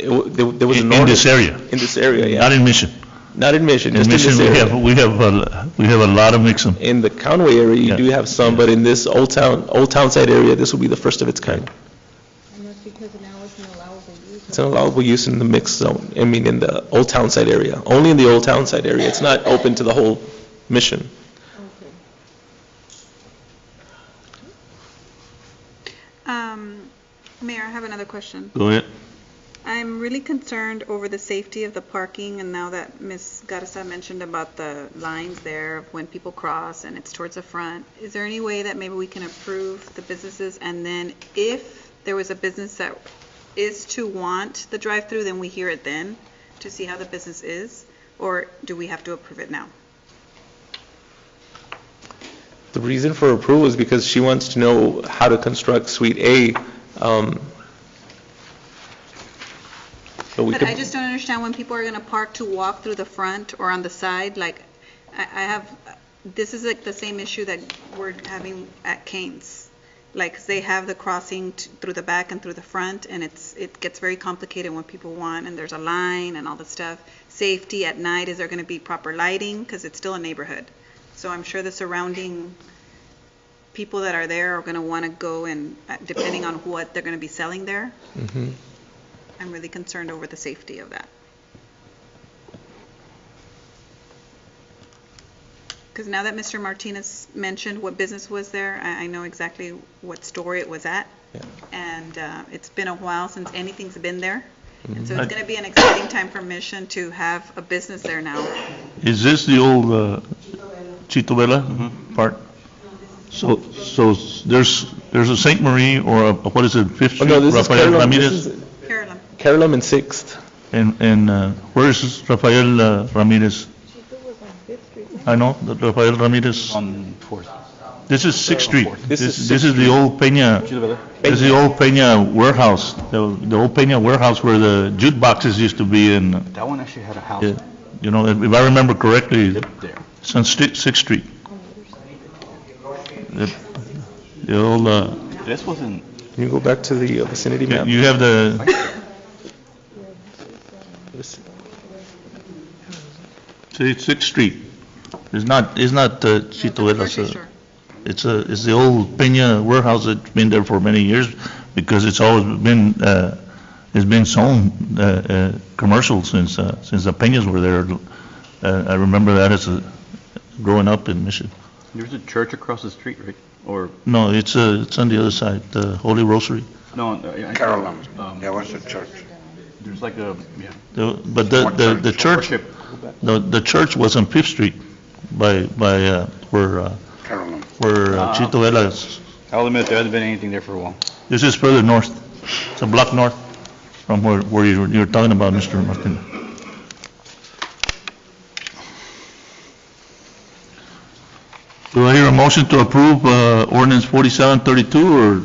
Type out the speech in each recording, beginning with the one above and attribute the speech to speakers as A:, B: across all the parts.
A: it wa- there there was an
B: in in
A: ordinance
B: this area,
A: in this area, yeah.
B: not in Mission.
A: Not in Mission,
B: In
A: just in
B: Mission,
A: this
B: we
A: area.
B: have, we have, a- we have a lot of mix-em.
A: In the Conway area, you
B: Yeah.
A: do have some, but in this Old Town, Old Town side area, this will be the first of its kind.
C: And that's because now it's an allowable use.
A: It's an allowable use in the mixed zone, I mean, in the Old Town side area, only in the Old Town side area. It's not open to the whole Mission.
C: Okay.
D: Um, Mayor, I have another question.
B: Go ahead.
D: I'm really concerned over the safety of the parking, and now that Ms. Garza mentioned about the lines there, of when people cross and it's towards the front, is there any way that maybe we can approve the businesses, and then if there was a business that is to want the drive-through, then we hear it then, to see how the business is, or do we have to approve it now?
A: The reason for approval is because she wants to know how to construct Suite A. um, so we
D: But
A: could-
D: I just don't understand when people are going to park to walk through the front or on the side, like, I, I have, this is like the same issue that we're having at Kane's. Like, 'cause they have the crossing t- through the back and through the front, and it's, it gets very complicated when people want, and there's a line and all this stuff. Safety at night, is there going to be proper lighting? Because it's still a neighborhood. So I'm sure the surrounding people that are there are going to want to go and, uh, depending on what they're going to be selling there.
A: Mhm.
D: I'm really concerned over the safety of that. Because now that Mr. Martinez mentioned what business was there, I, I know exactly what store it was at.
A: Yeah.
D: And uh, it's been a while since anything's been there. And so
B: Mhm.
D: it's going to be an exciting time for Mission to have a business there now.
B: Is this the old uh, Chito Vela Mm-hmm. part? So, so s- there's, there's a Saint Marie or a, what is it, Fifth
A: Oh,
B: Street?
A: no, this is
B: Rafael
A: Carolum,
B: Ramirez?
A: this is
D: Carolyn,
A: Carolum and Sixth.
B: And, and uh, where is this Rafael uh, Ramirez? I know, that Rafael Ramirez.
E: on Fourth.
B: This is Sixth Street.
A: This
B: This,
A: is
B: this is the old Peña, this is the old Peña warehouse, the, the old Peña warehouse where the jute boxes used to be and, uh,
E: That one actually had a house
B: yeah, you know, if I remember correctly,
E: there.
B: it's on Sti- Sixth Street. The the old, uh,
E: This wasn't,
A: Can you go back to the uh, vicinity map?
B: you have the,
A: This-
B: see, Sixth Street. It's not, it's not uh, Chito Vela,
D: grocery
B: so-
D: store.
B: It's a, it's the old Peña warehouse that's been there for many years because it's always been, uh, it's been sold, uh, uh, commercial since, uh, since the Peñas were there. Uh, I remember that as a, growing up in Mission.
E: there's a church across the street, right? Or,
B: No, it's, uh, it's on the other side, the Holy Rosary.
E: no. uh, I- I-
F: Carolum,
E: um,
F: there was a church.
E: There's like a, yeah.
B: The- But the,
F: What
B: the, the church,
E: Worship.
B: the, the church was on Fifth Street by, by, uh, where, uh,
F: Carolum.
B: where uh,
E: Ah.
B: Chito Vela is.
E: I'll admit, there hasn't been anything there for a while.
B: This is further north. It's a block north from where, where you're, you're talking about, Mr. Martinez. Do I hear a motion to approve uh, ordinance 4732, or,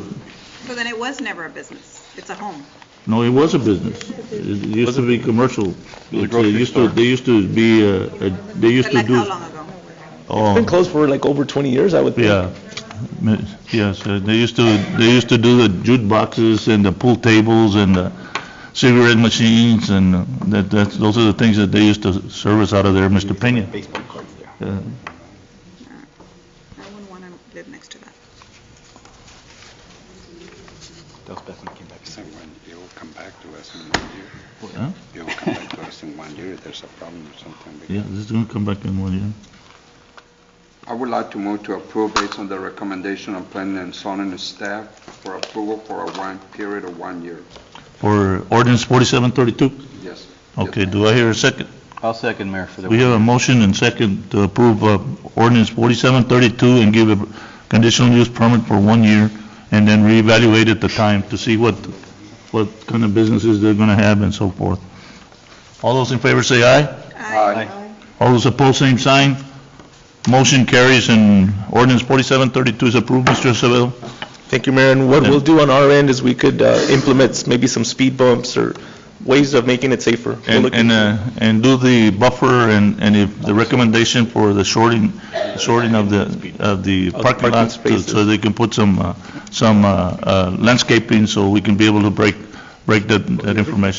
D: So then it was never a business. It's a home.
B: no, it was a business. It used to be commercial.
E: was a
B: It uh,
E: grocery
B: used to,
E: store.
B: they used to be, uh, uh, they used
D: But
B: to
D: like
B: do,
D: how long ago?
A: It's been
B: oh,
A: closed for like over 20 years, I would think.
B: yeah. M- Yes, uh, they used to, they used to do the jute boxes and the pool tables and the cigarette machines, and uh, that, that's, those are the things that they used to service out of there, Mr. Peña.
E: Baseball cards there.
B: Uh,
D: I wouldn't want to live next to that.
E: That was back when I came back.
F: So when it will come back to us in one year.
B: huh?
F: It will come back to us in one year if there's a problem or something. because-
B: Yeah, this is gonna come back in one year.
F: I would like to move to approve based on the recommendation of planning and zoning staff for approval for a one, period of one year.
B: For ordinance 4732?
F: Yes.
B: Okay, do I hear a second?
E: I'll second, Mayor, for the.
B: We have a motion and second to approve uh, ordinance 4732 and give a conditional use permit for one year, and then reevaluate at the time to see what, what kind of businesses they're gonna have and so forth. All those in favor say aye.
F: Aye.
B: All those opposed, same sign. Motion carries and ordinance 4732 is approved, Mr. Acevedo.
A: Thank you, Mayor. And what we'll do on our end is we could uh, implement s- maybe some speed bumps or ways of making it safer. We'll
B: And,
A: look
B: and,
A: into it.
B: uh, and do the buffer and, and if the recommendation for the shorting, shorting of the, of the parking
A: parking
B: lots, to-
A: spaces.
B: so they can put some, uh, some uh, uh, landscaping, so we can be able to break, break that, that information.